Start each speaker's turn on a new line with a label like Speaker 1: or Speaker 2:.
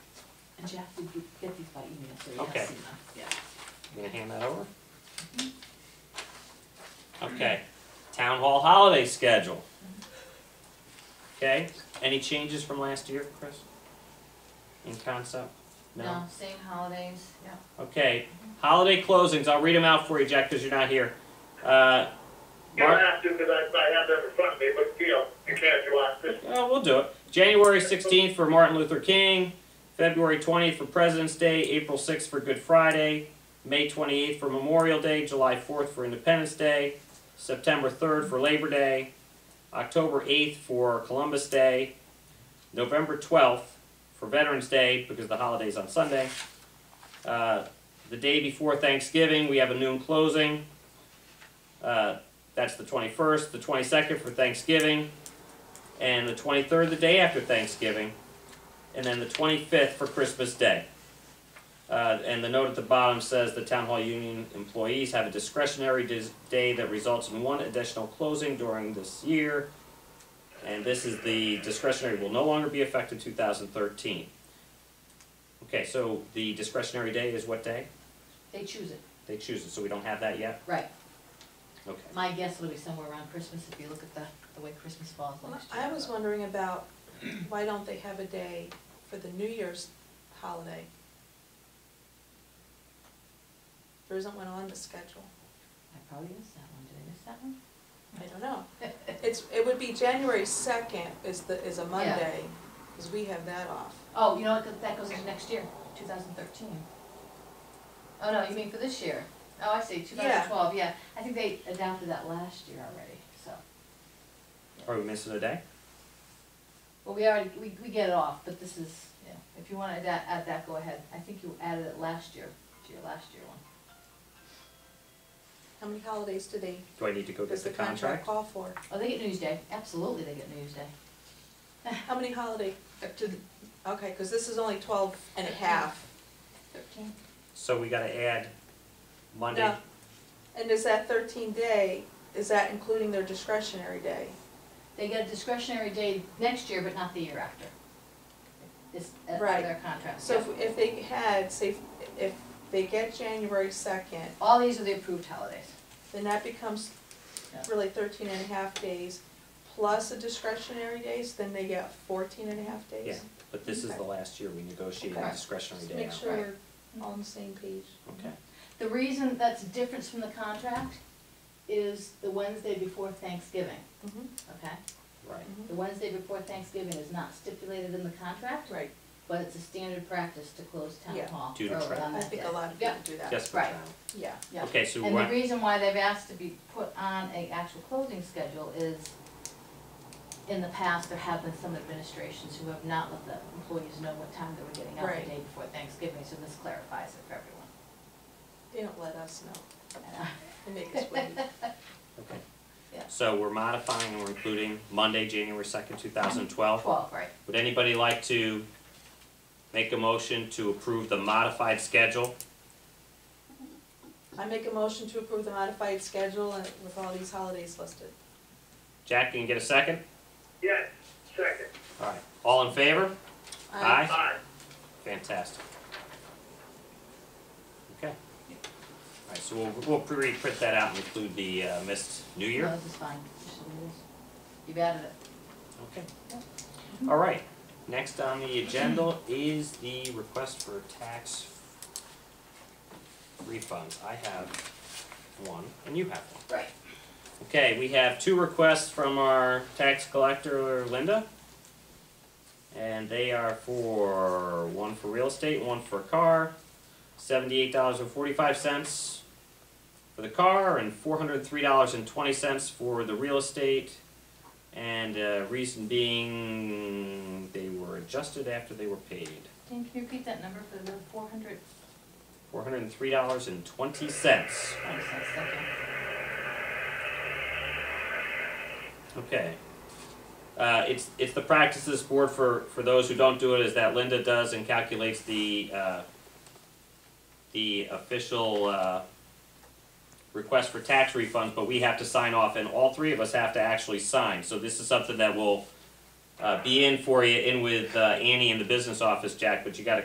Speaker 1: And Jeff, did you get these by email, so you
Speaker 2: Okay.
Speaker 1: have seen them, yeah.
Speaker 2: You gonna hand that over? Okay, town hall holiday schedule. Okay, any changes from last year, Chris? In concept?
Speaker 3: No, same holidays, yeah.
Speaker 2: Okay, holiday closings, I'll read them out for you, Jack, because you're not here. Uh,
Speaker 4: You don't
Speaker 2: March,
Speaker 4: have to, because I, I have them in front of me, but, you know, you can if you want. Just-
Speaker 2: uh, we'll do it. January sixteenth for Martin Luther King, February twentieth for President's Day, April sixth for Good Friday, May twenty-eighth for Memorial Day, July fourth for Independence Day, September third for Labor Day, October eighth for Columbus Day, November twelfth for Veterans Day, because the holiday's on Sunday. Uh, The day before Thanksgiving, we have a noon closing. Uh, That's the twenty-first, the twenty-second for Thanksgiving, and the twenty-third, the day after Thanksgiving, and then the twenty-fifth for Christmas Day. Uh, and the note at the bottom says the town hall union employees have a discretionary dis- day that results in one additional closing during this year. And this is the discretionary will no longer be effective two thousand thirteen. Okay, so the discretionary day is what day?
Speaker 1: They choose it,
Speaker 2: They choose it, so we don't have that yet?
Speaker 1: right.
Speaker 2: Okay.
Speaker 1: My guess would be somewhere around Christmas, if you look at the, the way Christmas falls next year.
Speaker 5: I was wondering about, why don't they have a day for the New Year's holiday? There isn't one on the schedule,
Speaker 1: I probably missed that one, did I miss that one?
Speaker 5: I don't know. It's, it would be January second is the, is a Monday, because we have that off.
Speaker 3: Oh, you know what, 'cause that goes into next year, two thousand thirteen. Oh, no, you mean for this year? Oh, I see, two thousand twelve, yeah. I think they adopted that last year already, so.
Speaker 2: Are we missing a day?
Speaker 3: Well, we already, we, we get it off, but this is, yeah, if you wanna add, that- add that, go ahead. I think you added it last year, to your last year one.
Speaker 5: How many holidays do they,
Speaker 2: Do I need to go get
Speaker 5: does
Speaker 2: the
Speaker 5: the contract
Speaker 2: contract?
Speaker 5: call for?
Speaker 3: Oh, they get New Year's Day, absolutely they get New Year's Day.
Speaker 5: How many holiday, do, okay, because this is only twelve and a half.
Speaker 3: Thirteen?
Speaker 2: So we gotta add Monday,
Speaker 5: No. And is that thirteen day, is that including their discretionary day?
Speaker 3: They get a discretionary day next year, but not the year after. It's, uh,
Speaker 5: Right.
Speaker 3: their contract.
Speaker 5: So if, if they had, say, if they get January second,
Speaker 3: All these are the approved holidays.
Speaker 5: then that becomes
Speaker 3: Yeah.
Speaker 5: really thirteen and a half days, plus the discretionary days, then they get fourteen and a half days.
Speaker 2: Yeah. but this is the last year we negotiate a
Speaker 3: Okay.
Speaker 2: discretionary
Speaker 5: Just
Speaker 2: day
Speaker 5: make
Speaker 2: out.
Speaker 5: sure
Speaker 3: Right.
Speaker 5: we're all on the same page.
Speaker 2: Okay,
Speaker 3: The reason that's different from the contract is the Wednesday before Thanksgiving,
Speaker 5: Mhm.
Speaker 3: okay?
Speaker 2: right.
Speaker 3: The Wednesday before Thanksgiving is not stipulated in the contract,
Speaker 5: Right,
Speaker 3: but it's a standard practice to close town
Speaker 5: Yeah.
Speaker 3: hall
Speaker 2: Due
Speaker 3: early
Speaker 2: to
Speaker 3: on that
Speaker 2: traffic.
Speaker 5: I think
Speaker 3: day.
Speaker 5: a lot of
Speaker 3: Yeah.
Speaker 5: people do that.
Speaker 2: Just for
Speaker 3: Right.
Speaker 2: now.
Speaker 5: Yeah,
Speaker 3: Yeah.
Speaker 2: Okay, so
Speaker 3: And the
Speaker 2: what,
Speaker 3: reason why they've asked to be put on a actual closing schedule is in the past, there have been some administrations who have not let the employees know what time they were getting out
Speaker 5: Right.
Speaker 3: the day before Thanksgiving, so this clarifies it for everyone.
Speaker 5: they don't let us know,
Speaker 3: And, uh,
Speaker 5: they make us wait.
Speaker 2: okay.
Speaker 3: Yeah.
Speaker 2: So we're modifying and we're including Monday, January second, two thousand twelve.
Speaker 3: Twelve, uh, right?
Speaker 2: Would anybody like to make a motion to approve the modified schedule?
Speaker 5: I make a motion to approve the modified schedule and with all these holidays listed.
Speaker 2: Jack, can you get a second?
Speaker 4: Yeah, second.
Speaker 2: All right, all in favor? Aye.
Speaker 4: Aye.
Speaker 2: Fantastic. Okay. All right, so we'll, we'll pre-print that out and include the uh, missed New Year.
Speaker 3: No, this is fine, Just the rules. You've added it.
Speaker 2: Okay. All right, next on the agenda is the request for tax refunds. I have one, and you have one.
Speaker 3: Right.
Speaker 2: Okay, we have two requests from our tax collector, Linda. And they are for, one for real estate, one for a car. Seventy-eight dollars and forty-five cents for the car, and four hundred and three dollars and twenty cents for the real estate. And uh, reason being, they were adjusted after they were paid.
Speaker 3: Dan, can you repeat that number for the four hundred?
Speaker 2: Four hundred and three dollars and twenty cents.
Speaker 3: Oh,
Speaker 2: Okay. Uh, it's it's the practice of this board for for those who don't do it is that Linda does and calculates the uh, the official uh, request for tax refunds, but we have to sign off, and all three of us have to actually sign. So this is something that will uh, be in for you, in with uh, Annie in the business office, Jack. But you got to